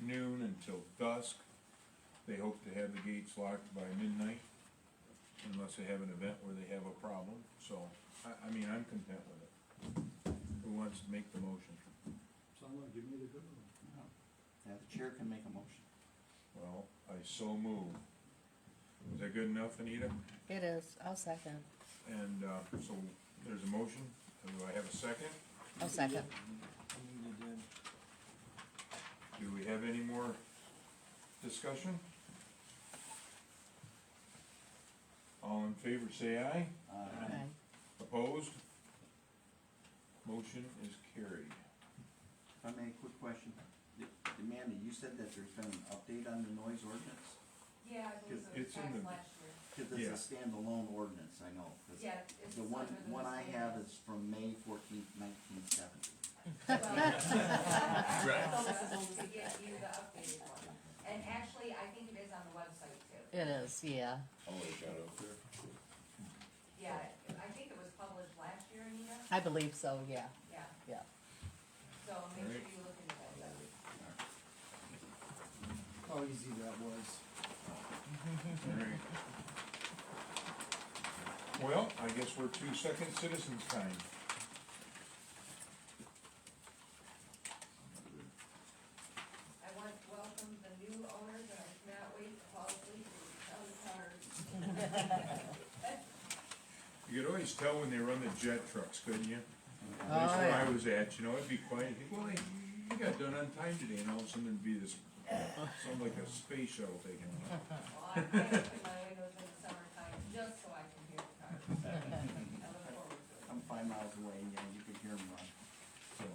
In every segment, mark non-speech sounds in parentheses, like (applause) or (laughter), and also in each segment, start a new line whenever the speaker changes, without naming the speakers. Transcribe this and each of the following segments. noon until dusk. They hope to have the gates locked by midnight, unless they have an event where they have a problem, so, I, I mean, I'm content with it. Who wants to make the motion?
Someone give me the good one.
Now, the chair can make a motion.
Well, I so move. Is that good enough, Anita?
It is, I'll second,
And, uh, so, there's a motion, do I have a second?
I'll second.
Do we have any more discussion? All in favor, say aye.
Uh,
Aye.
Opposed? Motion is carried.
If I may, a quick question. The- the Amanda, you said that there's been an update on the noise ordinance?
Yeah, I believe so,
It's- it's in
Back
the-
last year.
Cause it's
Yeah.
a standalone ordinance, I know. 'cause
Yeah, it's
The one,
under the
one I
same-
have is from May fourteenth, nineteen seventy.
Well, (laughs)
Right.
So this is only to get you the updated one, and actually, I think it is on the website too.
It is, yeah,
Yeah, I think it was published last year, Anita,
I believe so, yeah,
yeah,
yeah.
so make sure
Alright.
you look into that.
How easy that was.
Alright. Well, I guess we're two second citizens time.
I want to welcome the new owners, and I cannot wait to fall asleep and tell the cars.
You could always tell when they run the jet trucks, couldn't you?
Oh,
That's where
yeah.
I was at, you know, it'd be quiet, you think, well, I- you got done on time today, and all of a sudden it'd be
(laughs)
this, sound like a space shuttle taking off.
Well, I can't open my windows in the summertime, just so I can hear the cars. I look forward to it.
I'm five miles away, yeah, you could hear them run.
So,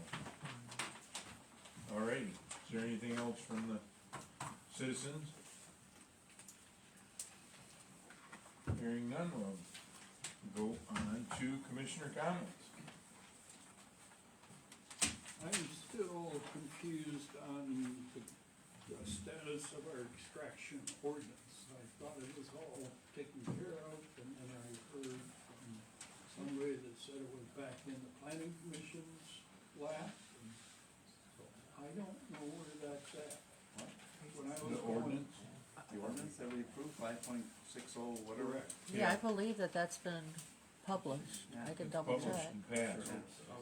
Alrighty, is there anything else from the citizens? Hearing none, we'll go on to commissioner comments.
I'm still confused on the the status of our extraction ordinance. I thought it was all taken care of, and then I heard from somebody that said it was back in the planning commission's lap. and so I don't know where that's at.
What?
When I was
The
going.
ordinance,
The ordinance that we approved, five point six oh, whatever.
Yeah, I believe that that's been published, I can double
published
check.
and passed,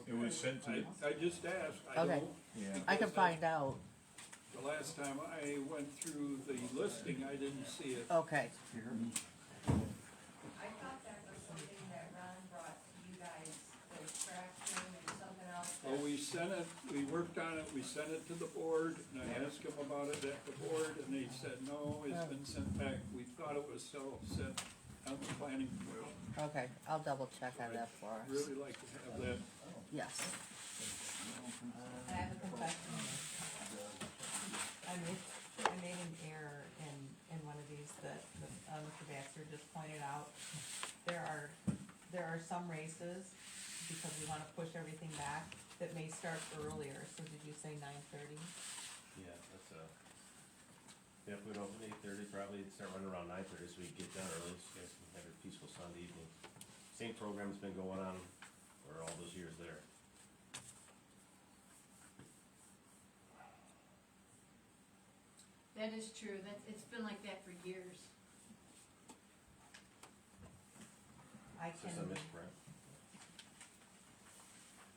it was sent to,
I,
the-
I just asked, I
Okay.
don't
yeah,
I can find out,
The last time I went through the listing, I didn't see it.
okay,
You hear me?
I thought that was something that Ron brought to you guys, the extraction and something else. that-
Well, we sent it, we worked on it, we sent it to the board, and I asked them about it at the board, and they said, no, it's been sent back. We thought it was still sent on the planning board.
okay, I'll double check on that for us,
Really like to have that.
yes.
I have a question. I made, I made an error in, in one of these that, that, uh, Mr. Baxter just pointed out. There are, there are some races, because we wanna push everything back, that may start earlier, so did you say nine thirty?
Yeah, that's uh yeah, if we don't, eight thirty, probably it'd start running around nine thirty, so we get done early, so you guys can have a peaceful Sunday evening. Same program's been going on for all those years there.
That is true, that, it's been like that for years.
I
It's
can,
just a misprint.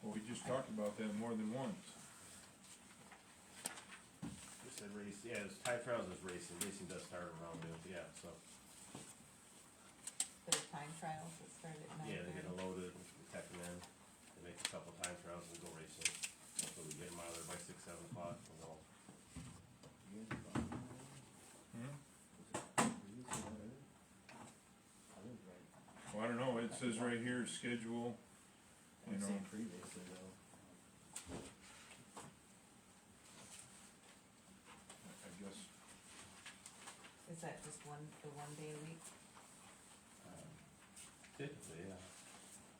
well, we just talked about that more than once.
It said race, yeah, it's Ty Trails is racing, racing does start around noon, yeah, so,
there's time trials that start at nine
yeah, they get
thirty.
a load of, we tech them in, they make a couple time trials and go racing. So we get them out of there by six, seven o'clock, and all.
Well, I don't know, it says right here, schedule, you know,
previously though.
I guess,
Is that just one, the one day a week?
um, Typically, yeah,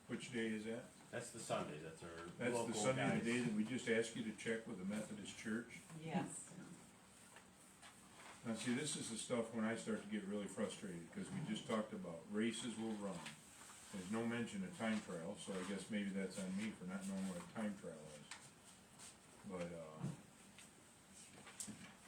which day is that?
that's the Sunday, that's our
That's
local
the
guys.
Sunday, the day that we just asked you to check with the Methodist Church.
Yes.
Now, see, this is the stuff when I start to get really frustrated, because we just talked about races will run. There's no mention of time trial, so I guess maybe that's on me for not knowing what a time trial is. But, uh,